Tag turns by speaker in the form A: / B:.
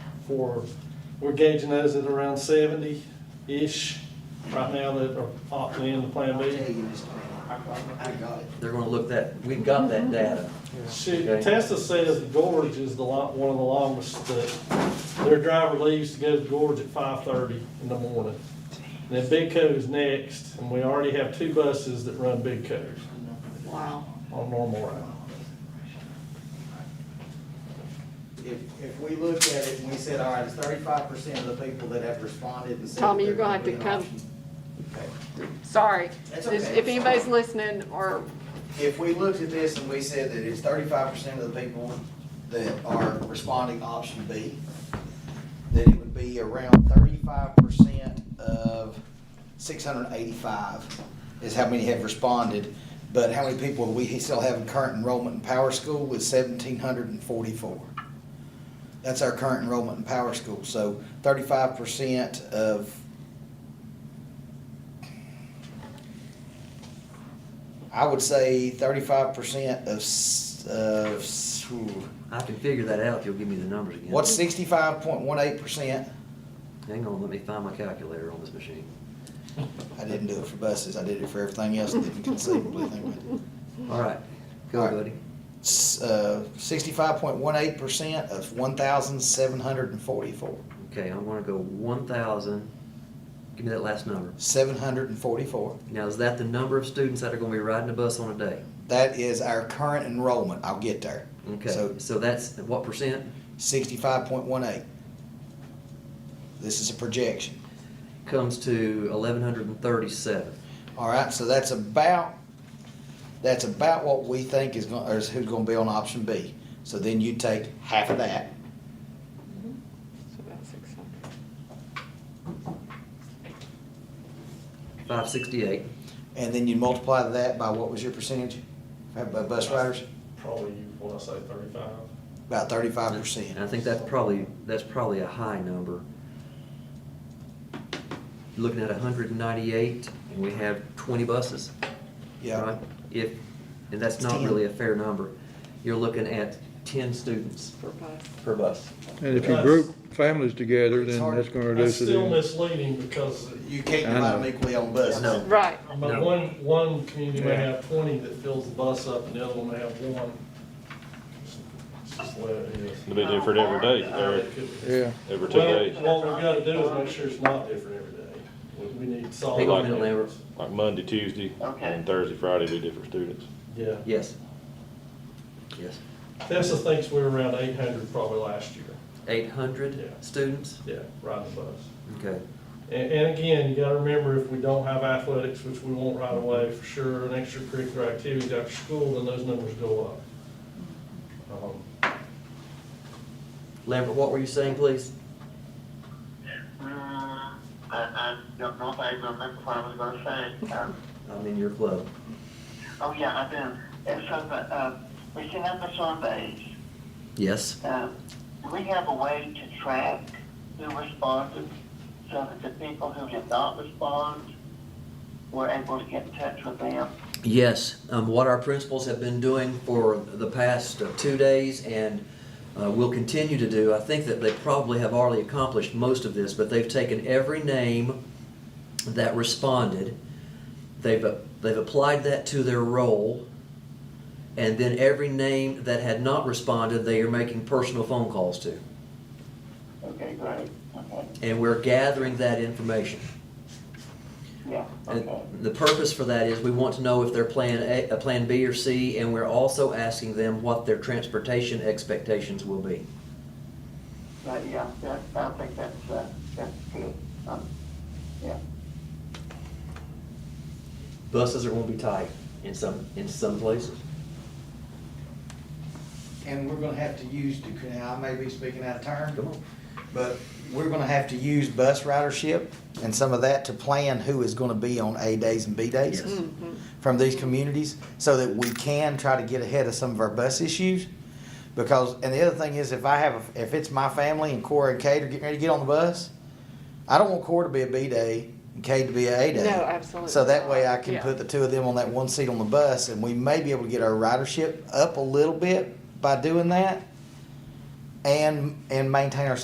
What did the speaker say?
A: for, we're gauging those at around seventy-ish right now that are opting in to Plan
B: I'll tell
A: B.
B: you, Mr. Manning, I, I got it.
C: They're gonna look that, we've got that data.
A: She,
C: Okay.
A: Tessa says the gorge is the lot, one of the longest, that their driver leaves to go to the gorge at five-thirty in the morning. And then Big Cove is next, and we already have two buses that run Big Cove
D: Wow.
A: on normal route.
B: If, if we looked at it and we said, all right, it's thirty-five percent of the people that have responded and said. that
D: Tommy, you're
B: they're
D: gonna have to
B: gonna do
D: come,
B: an option.
D: sorry.
B: That's
D: If-
B: okay.
D: If anybody's listening or,
B: Okay. If we looked at this and we said that it's thirty-five percent of the people that are responding option B, then it would be around thirty-five percent of six hundred and eighty-five is how many have responded. But how many people we still have in current enrollment in Power School is seventeen hundred and forty-four. That's our current enrollment in Power School, so thirty-five percent of. I would say thirty-five percent of, s- of, s- ooh.
C: I can figure that out if you'll give me the numbers again.
B: What's sixty-five point one eight percent?
C: Hang on, let me find my calculator on this machine.
B: I didn't do it for buses, I did it for everything else that you can conceivably think of.
C: All right, go,
B: All right.
C: buddy.
B: S- Uh, sixty-five point one eight percent of one thousand seven hundred and forty-four.
C: Okay, I'm gonna go one thousand, give me that last number.
B: Seven hundred and forty-four.
C: Now, is that the number of students that are gonna be riding a bus on a day?
B: That is our current enrollment, I'll get there.
C: Okay,
B: So
C: so that's what percent?
B: sixty-five point one eight. This is a projection.
C: Comes to eleven hundred and thirty-seven.
B: All right, so that's about, that's about what we think is going, or is who's gonna be on option B. So then you take half of that,
D: so about 600.
C: Five sixty-eight.
B: and then you multiply that by what was your percentage? By bus riders?
A: Probably, you wanna say thirty-five?
B: About thirty-five
C: And I
B: percent.
C: think that's probably, that's probably a high number. Looking at hundred and ninety-eight, and we have twenty buses.
B: Yeah,
C: right? If, and that's not
B: Ten.
C: really a fair number. You're looking at ten students
D: per bus.
C: per bus.
E: And if you group families together,
B: It's
E: then
B: hard.
E: that's gonna
A: That's
E: reduce it.
A: still
E: in-
A: misleading because
B: you can't
E: I
B: divide
E: know.
B: them equally on buses.
C: No.
D: Right,
A: I mean,
C: No.
A: one, one community may
E: Yeah.
A: have twenty that fills the bus up and the other one may have one. It's just the way it is.
F: It'll be different every day, every,
E: Yeah,
F: every two days.
A: Well, what we gotta do is make sure it's not different every day. We- We need solid.
C: Hang on a minute, Lambert.
F: Like Monday, Tuesday, and Thursday, Friday be different students.
A: Yeah.
C: Yes. Yes.
A: Tessa thinks we were around eight hundred probably last year.
C: Eight hundred
A: Yeah.
C: students?
A: Yeah, riding the bus.
C: Okay.
A: And, and again, you gotta remember, if we don't have athletics, which we won't right away for sure, and extracurricular activities after school, then those numbers go up. Um,
C: Lambert, what were you saying, please?
G: Mm, I, I don't know if I remember what I was going to say. Um,
C: I'm in your club.
G: oh, yeah, I do. And so, the, uh, we send out the surveys.
C: Yes.
G: Um, do we have a way to track who responded so that the people who did not respond were able to get in touch with them?
C: Yes, um, what our principals have been doing for the past uh, two days and uh, will continue to do, I think that they probably have already accomplished most of this, but they've taken every name that responded, they've, uh, they've applied that to their role, and then every name that had not responded, they are making personal phone calls to.
G: Okay, great. Okay.
C: And we're gathering that information.
G: Yeah,
C: And
G: okay.
C: the purpose for that is we want to know if they're plan A, uh, plan B or C, and we're also asking them what their transportation expectations will be.
G: But yeah, that, I think that's, uh, that's good. Um, yeah.
C: Buses are gonna be tight in some, in some places.
B: And we're gonna have to use, now, I may be speaking out of turn.
C: Come on.
B: But we're gonna have to use bus ridership and some of that to plan who is gonna be on A days and B days
C: Yes.
B: from these communities, so that we can try to get ahead of some of our bus issues. Because, and the other thing is, if I have, a- if it's my family and Cora and Kate are getting ready to get on the bus, I don't want Cora to be a B day and Kate to be a A day.
D: No, absolutely
B: So that way I
D: not.
B: can
D: Yeah.
B: put the two of them on that one seat on the bus, and we may be able to get our ridership up a little bit by doing that and, and maintain our